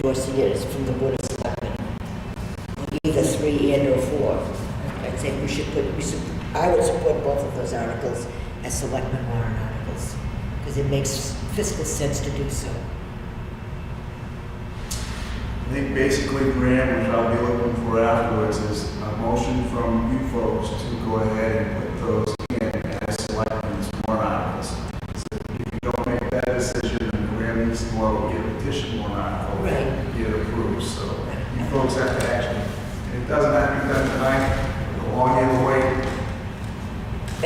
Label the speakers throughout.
Speaker 1: course of years from the Board of Selectmen, either three and or four. I'd say we should put, we should, I would support both of those articles as selectmen warrant articles, because it makes fiscal sense to do so.
Speaker 2: I think basically, Graham, what I'll be looking for afterwards is a motion from you folks to go ahead and put those in as selectmen's warrant articles. So If you don't make that decision, then Graham needs to go out and get a petition warrant article
Speaker 1: Right.
Speaker 2: and get it approved, so you folks have to action. It doesn't have to be done tonight, the longer you wait,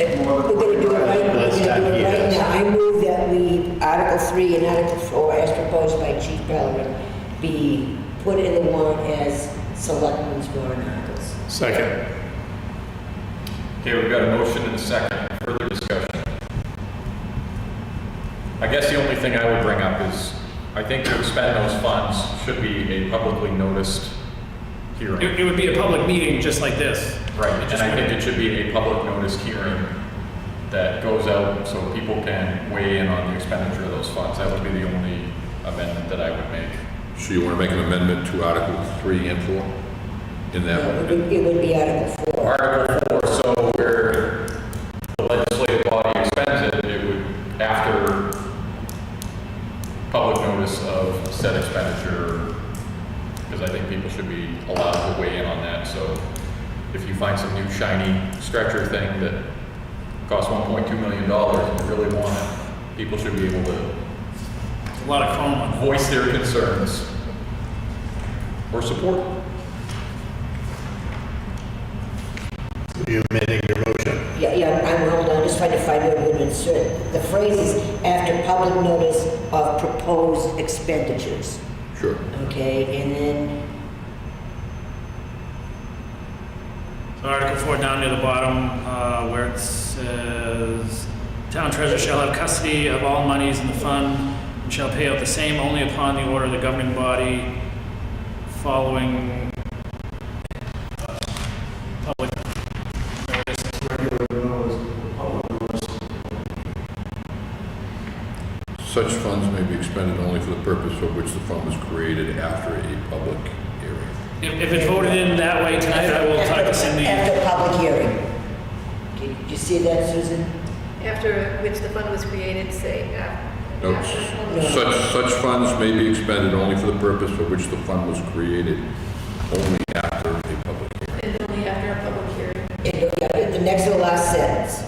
Speaker 1: And We're gonna do it right, we're
Speaker 3: Let's
Speaker 1: gonna do it
Speaker 3: not
Speaker 1: right
Speaker 3: do
Speaker 1: now. I move that we, Article three and Article four, as proposed by Chief Pellegrin, be put in the warrant as selectmen's warrant articles.
Speaker 3: Second.
Speaker 4: Okay, we've got a motion and a second. Further discussion? I guess the only thing I would bring up is, I think to expend those funds should be a publicly noticed hearing.
Speaker 5: It, it would be a public meeting just like this.
Speaker 4: Right,
Speaker 5: It
Speaker 4: and
Speaker 5: just
Speaker 4: I
Speaker 5: wouldn't-
Speaker 4: think it should be a public noticed hearing that goes out so people can weigh in on the expenditure of those funds. That would be the only amendment that I would make.
Speaker 6: So you want to make an amendment to Article 3 and 4 in that?
Speaker 1: It would be- it would be Article four.
Speaker 4: Article four, so where the legislative body expends it, it would, after public notice of said expenditure, because I think people should be allowed to weigh in on that, so if you find some new shiny stretcher thing that costs one point two million dollars and you really want it, people should be able to
Speaker 5: It's a lot of fun.
Speaker 4: voice their concerns or support.
Speaker 3: You amending your motion?
Speaker 1: Yeah, yeah, I'm, hold on, just trying to find where we're gonna insert. The phrase is after public notice of proposed expenditures,
Speaker 6: Sure.
Speaker 1: okay? And then,
Speaker 5: So Article four down near the bottom, uh, where it says, town treasurer shall have custody of all monies in the fund and shall pay out the same only upon the order of the governing body following uh, public notice.
Speaker 2: regular notice, public notice.
Speaker 6: Such funds may be expended only for the purpose for which the fund was created after a public hearing.
Speaker 5: If, if it voted in that way tonight, I will talk to Cindy.
Speaker 1: after public hearing. Did you see that, Susan?
Speaker 7: After which the fund was created, say, uh, after.
Speaker 6: No,
Speaker 1: No.
Speaker 6: s- such, such funds may be expended only for the purpose for which the fund was created, only after a public hearing.
Speaker 7: And only after a public hearing.
Speaker 1: And, oh, yeah, the next to the last sentence,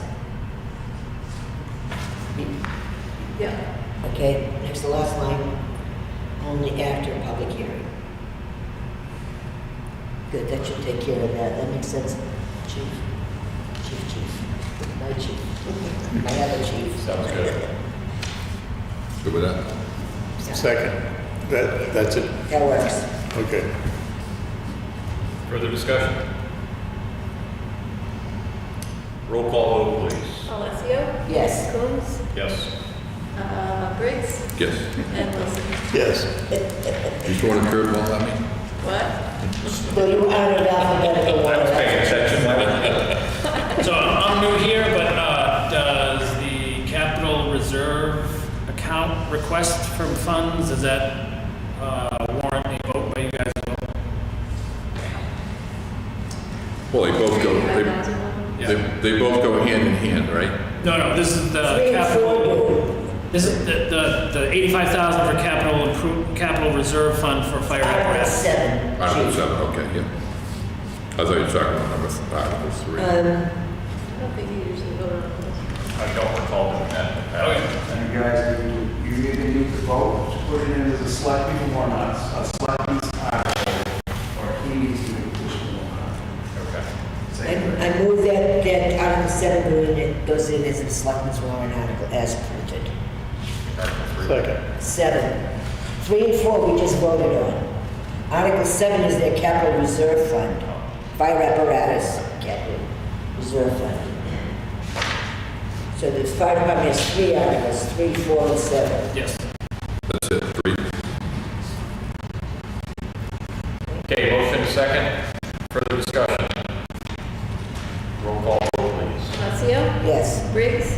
Speaker 7: Yeah.
Speaker 1: okay? Next to the last line, only after public hearing. Good, that should take care of that. That makes sense. Chief, chief, chief, my chief, my other chief.
Speaker 4: Sounds good.
Speaker 6: Good with that?
Speaker 3: Second. That, that's it?
Speaker 1: That works.
Speaker 3: Okay.
Speaker 4: Further discussion? Roll call vote, please.
Speaker 7: Alessio?
Speaker 1: Yes.
Speaker 7: Coons?
Speaker 4: Yes.
Speaker 7: Uh, Briggs?
Speaker 6: Yes.
Speaker 7: And Wilson.
Speaker 3: Yes.
Speaker 6: You throwing a curveball at me?
Speaker 7: What?
Speaker 1: Well, you added alphabetical
Speaker 4: I was
Speaker 1: order.
Speaker 4: paying attention.
Speaker 5: So I'm new here, but uh, does the capital reserve account request from funds, does that uh, warrant a vote by you guys?
Speaker 6: Well, they both go, they,
Speaker 7: 35,000?
Speaker 5: Yeah.
Speaker 6: they- they both go hand in hand, right?
Speaker 5: No, no, this is the
Speaker 1: Three and four
Speaker 5: capital,
Speaker 1: do.
Speaker 5: this is the, the- the 85,000 for capital, impro- capital reserve fund for fire
Speaker 1: Article
Speaker 5: apparatus.
Speaker 1: seven.
Speaker 6: Article
Speaker 1: Chief.
Speaker 6: seven, okay, yeah. I thought you were talking about number, th- Article three.
Speaker 1: Um,
Speaker 7: I don't think you usually vote on those.
Speaker 4: I don't recall doing
Speaker 5: Oh,
Speaker 4: that.
Speaker 2: And you guys, you you either need to vote to put it in as a selectman or not, a selectman's article, or he needs to make a decision or not.
Speaker 4: Okay.
Speaker 1: I
Speaker 2: Same thing.
Speaker 1: I move that, that Article seven go in- it goes in as a selectmen's warrant article as printed.
Speaker 3: Second.
Speaker 1: Seven. Three and four we just voted on. Article seven is their capital reserve fund. Fire apparatus, capital reserve fund. So the fire department has three articles, three, four, and seven.
Speaker 5: Yes.
Speaker 6: That's it.